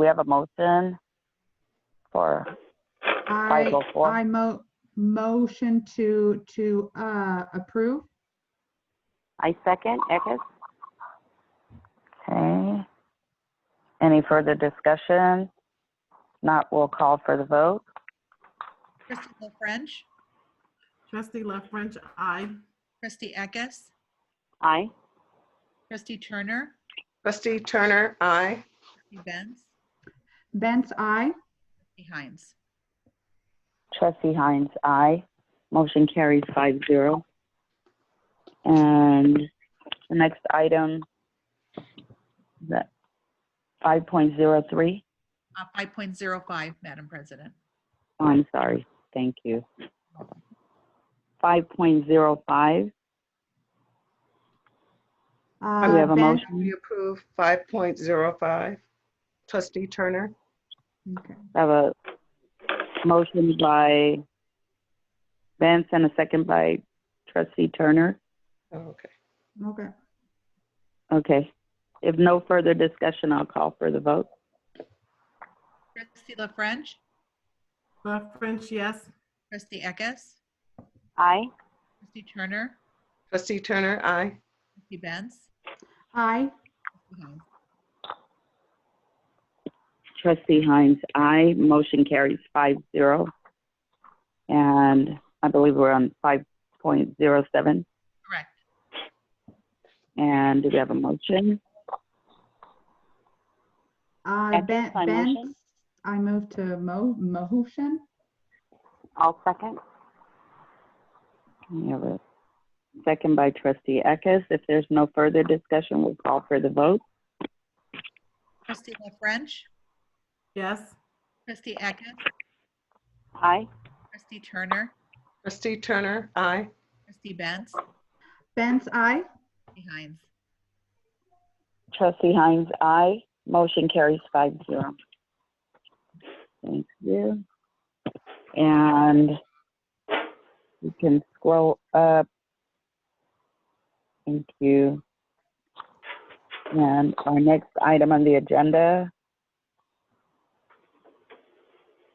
we have a motion for I, 504? I mo, motion to, to, uh, approve. I second, Eckes. Okay. Any further discussion? Not, we'll call for the vote. Trustee La French, Trustee La French, aye. trustee Eckes, Aye. trustee Turner, Trustee Turner, aye. trustee Benz, Benz, I. trustee Heinz. Trustee Hines, aye. Motion carries five zero. And the next item, that, 5.03, Uh, 5.05, Madam President. Oh, I'm sorry, thank you. 5.05, Uh, do we have a motion? We approve 5.05. Trustee Turner, I have a motion by Vince and a second by trustee Turner. Oh, okay. Okay. Okay. If no further discussion, I'll call for the vote. Trustee La French, La French, yes. trustee Eckes, Aye. trustee Turner, Trustee Turner, aye. trustee Benz, I, trustee Heinz. Trustee Hines, aye. Motion carries five zero. And I believe we're on five point zero seven. Correct. And do we have a motion? I, Eckes, uh, Ben, by motion? Benz, I move to mo, motion. I'll second. We have a second by trustee Eckes. If there's no further discussion, we'll call for the vote. Trustee La French, Yes. trustee Eckes, Aye. trustee Turner, Trustee Turner, aye. trustee Benz, Benz, I. trustee Heinz. Trustee Hines, aye. Motion carries five zero. Thank you. And you can scroll up. Thank you. And our next item on the agenda,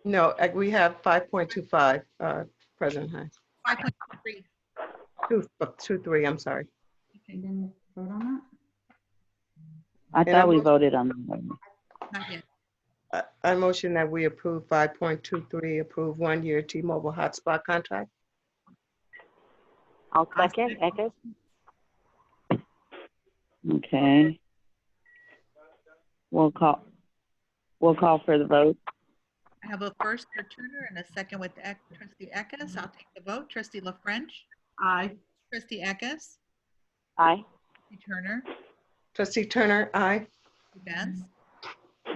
No, uh, we have 5.25, uh, President Hines. 5.3, Two, uh, two, three, I'm sorry. You didn't vote on that? I Yeah, thought we motion- voted on that one. not yet. I- Uh, I motion that we approve 5.23, approve one-year T-Mobile hotspot contract. I'll second, Eckes. Okay. We'll call, we'll call for the vote. I have a first for Turner and a second with Eck- trustee Eckes. I'll take the vote. Trustee La French, Aye. trustee Eckes, Aye. trustee Turner, Trustee Turner, aye. trustee Benz,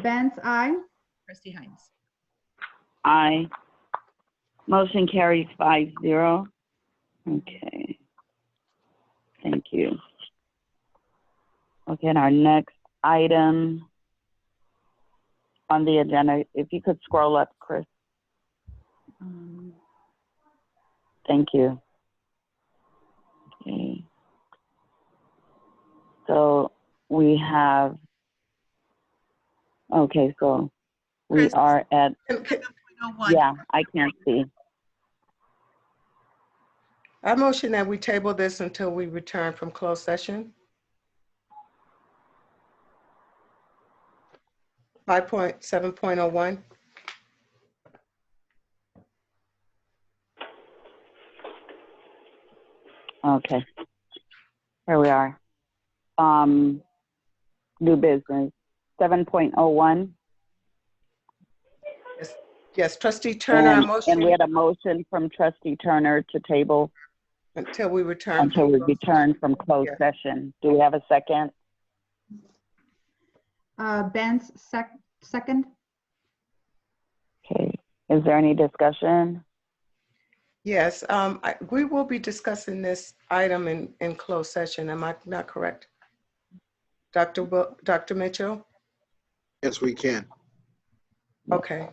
Benz, I. trustee Heinz. Aye. Motion carries five zero. Okay. Thank you. Okay, and our next item on the agenda, if you could scroll up, Chris. Um, Thank you. Okay. So we have, okay, so we Chris. are at, Can- can- 7.01. yeah, I can't see. I motion that we table this until we return from closed session. 5.7.01. Okay. Here we are. Um, new business, seven point oh one. Yes, trustee Turner, I And and we motion had a motion from trustee Turner to table until we return. until we from closed return from closed Yeah. session. Do we have a second? Uh, Benz, sec, second. Okay. Is there any discussion? Yes, um, I- we will be discussing this item in, in closed session. Am I not correct? Dr. Wil- Dr. Mitchell? Yes, we can. Okay,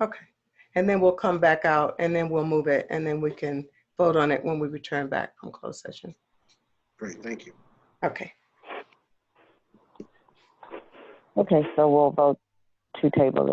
okay. And then we'll come back out and then we'll move it and then we can vote on it when we return back from closed session. Great, thank you. Okay. Okay, so we'll vote to table it.